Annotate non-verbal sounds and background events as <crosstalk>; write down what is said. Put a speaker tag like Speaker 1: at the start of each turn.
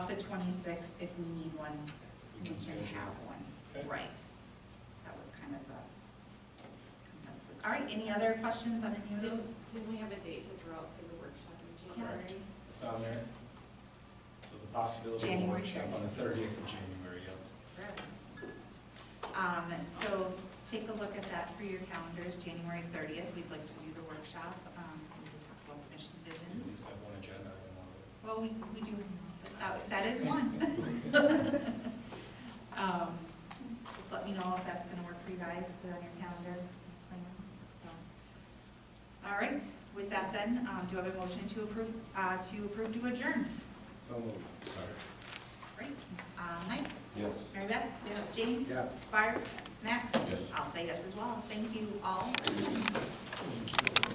Speaker 1: the twenty-sixth if we need one, we
Speaker 2: You
Speaker 1: can
Speaker 2: can schedule
Speaker 1: have
Speaker 2: Okay.
Speaker 1: one, right? That was kind of a consensus. All right, any other questions on any of
Speaker 3: Didn't
Speaker 1: those?
Speaker 3: didn't we have a date to throw out for the workshop in January?
Speaker 1: Yes.
Speaker 2: It's on there. So the possibility of a
Speaker 1: January
Speaker 2: workshop on the
Speaker 1: 30th.
Speaker 2: thirtieth of January, yep.
Speaker 1: Um, so take a look at that for your calendars, January thirtieth, we'd like to do the workshop, um, we can talk about the mission
Speaker 2: You at
Speaker 1: vision.
Speaker 2: least have one agenda item on it.
Speaker 1: Well, we, we do, but that, that is one. <laughs> Um, just let me know if that's gonna work for you guys, put it on your calendar plans, so. All right, with that then, um, do I have a motion to approve, uh, to approve to adjourn?
Speaker 4: So moved.
Speaker 1: Great, uh, Mike,
Speaker 4: Yes.
Speaker 1: Mary Beth?
Speaker 3: Yes.
Speaker 1: James?
Speaker 4: Yes.
Speaker 1: Barb? Matt?
Speaker 2: Yes.
Speaker 1: I'll say yes as well. Thank you all.